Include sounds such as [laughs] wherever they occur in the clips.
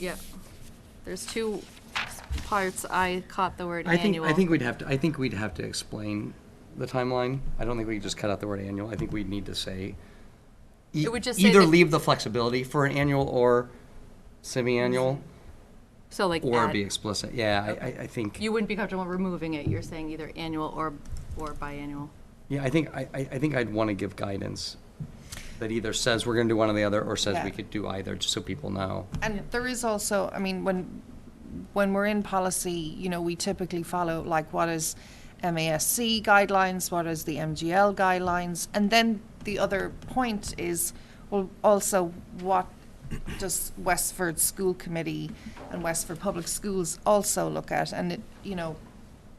Yeah, there's two parts, I caught the word I think, annual. I think we'd have to, I think we'd have to explain the timeline. I don't think we could just cut out the word annual. I think we'd need to say. e- It would just say Either that- leave the flexibility for an annual or semi-annual, So like, or add- be explicit. Yeah, I, I, I think, you wouldn't be comfortable removing it, you're saying either annual or, or biannual. yeah, I think, I, I I think I'd want to give guidance that either says we're going to do one or the other, or says we Yeah. could do either, just so people know. And there is also, I mean, when, when we're in policy, you know, we typically follow like what is MASC guidelines, what is the MGL guidelines, and then the other point is, well, also what does Westford School Committee and Westford Public Schools also look at? And it, you know,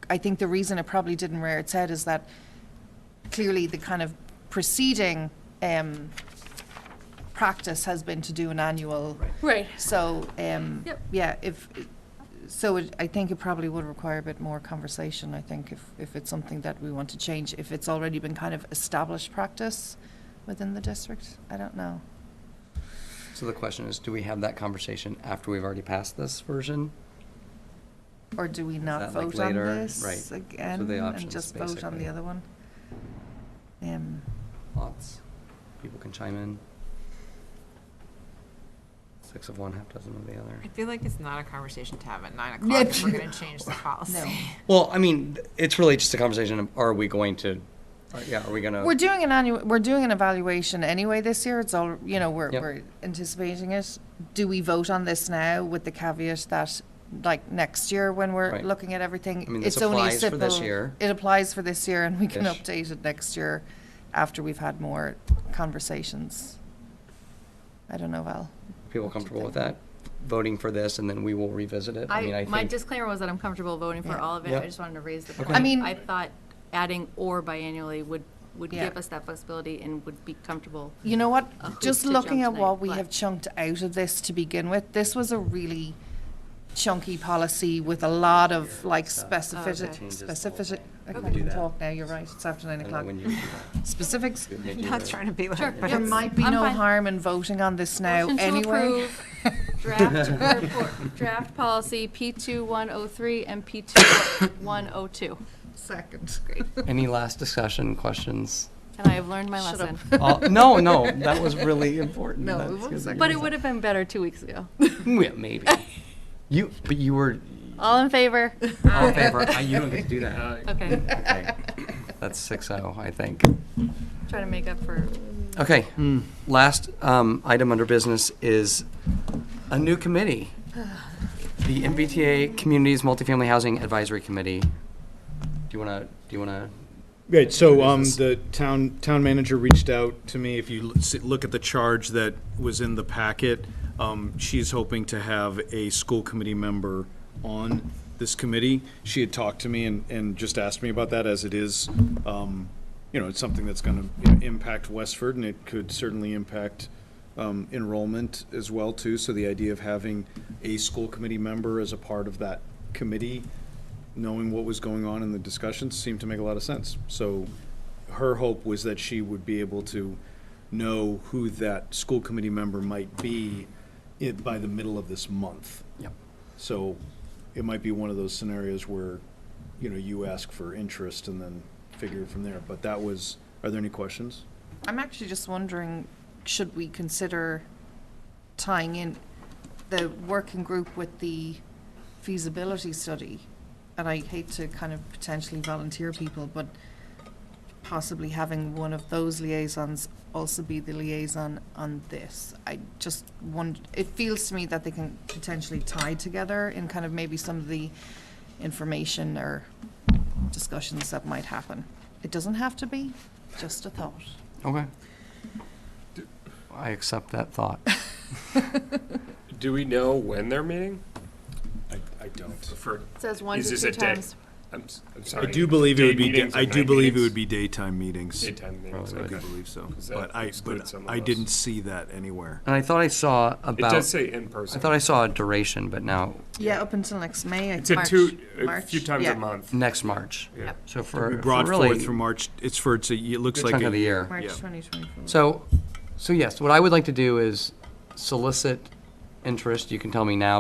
I think the reason it probably didn't rear its head is that clearly the kind of preceding um, practice has been to do an annual. Right. So, um, Yep. yeah, if, so it- I think it probably would require a bit more conversation, I think, if, if it's something that we want to change, if it's already been kind of established practice within the district, I don't know. So the question is, do we have that conversation after we've already passed this version? Or do we that, not like, vote on later? Right. this So the again and options, just vote on basically. the other one? Um, Lots. People can chime in. Six of one, half dozen of the other. I feel like it's not a conversation to have at nine o'clock if we're gonna change the No. policy. Well, I mean, th- it's really just a conversation of are we going to, uh, yeah, are we going We're to? doing an annual, we're doing an evaluation anyway this year. It's all, you know, we're, Yep. we're anticipating it. Do we vote on this now with the caveat that, like, next year when we're Right. looking at everything? I mean, this it's only a applies for this simple- year. It applies for this year and we can Ish. update it next year after we've had more conversations. I don't know, Val. People comfortable with that? Voting for this and then we will revisit it? I mean, I, I my think, disclaimer was that I'm comfortable voting for Yeah. all of it, Yeah. I just wanted to raise the Okay. I point. mean- I thought adding or biannually would, would Yeah. give us that flexibility and would be comfortable. You know what? a hoop Just to looking at jump what tonight, we but- have chunked out of this to begin with, this was a really chunky policy with a lot of like okay. specificity, specificity. I Okay. can't Do even that. talk now, you're right, it's after nine I don't know o'clock. when you do Specifics. that. I'm not trying to be Sure. like, but Yeah. There it's, might be I'm no fine. harm in voting on this now Motion to anyway. approve [laughs] [laughs] Draft, report- draft policy P two one oh three and P two one oh two. Second. Any last discussion, questions? [laughs] And I have learned my Shut lesson. Uh, No, no, that was really important. No, it That's was good. second. But it would have been better two weeks ago. [laughs] Yeah, [laughs] maybe. You, but you were, All in [laughs] favor? all in [laughs] favor, I- you don't get to do that. Okay, [laughs] Okay. That's six oh, I think. trying to make up for, Okay, Hmm. last um, item under business is a new committee. The MBTA Communities Multifamily Housing Advisory Committee. Do you want to, do you want to, Right, so um, Business. the town, town manager reached out to me, if you l- s- look at the charge that was in the packet, um, she's hoping to have a school committee member on this committee. She had talked to me and, and just asked me about that, as it is, um, you know, it's something that's gonna you know, impact Westford, and it could certainly impact um, enrollment as well, too, so the idea of having a school committee member as a part of that committee knowing what was going on in the discussions seemed to make a lot of sense. So her hope was that she would be able to know who that school committee member might be i- by the middle of this month. Yep. So it might be one of those scenarios where, you know, you ask for interest and then figure from there. But that was, are there any questions? I'm actually just wondering, should we consider tying in the working group with the feasibility study? And I hate to kind of potentially volunteer people, but possibly having one of those liaisons also be the liaison on this. I just wonder, it feels to me that they can potentially tie together in kind of maybe some of the information or discussions that might happen. It doesn't have to be, just a thought. okay. I accept that thought. Do we know when they're meeting? I, I don't. For, says one Is to this two a day? times. I'm, s- I'm I sorry. do believe it would Day be, da- meetings I or do night believe it meetings? would be daytime meetings. Daytime meetings, I do okay. believe so. 'Cause that But I, excludes but some of I didn't us. see that anywhere. And I thought I saw It does about, say in I person. thought I saw a duration, but now, Yeah, up until next May. I It's a March, two, a March, few times yeah. a month. next March. Yep. So for We for brought really forth through March, it's for, it's a, it looks good like. chunk of a- the year. March Yeah. 2024. So, so yes, what I would like to do is solicit interest, you can tell me now,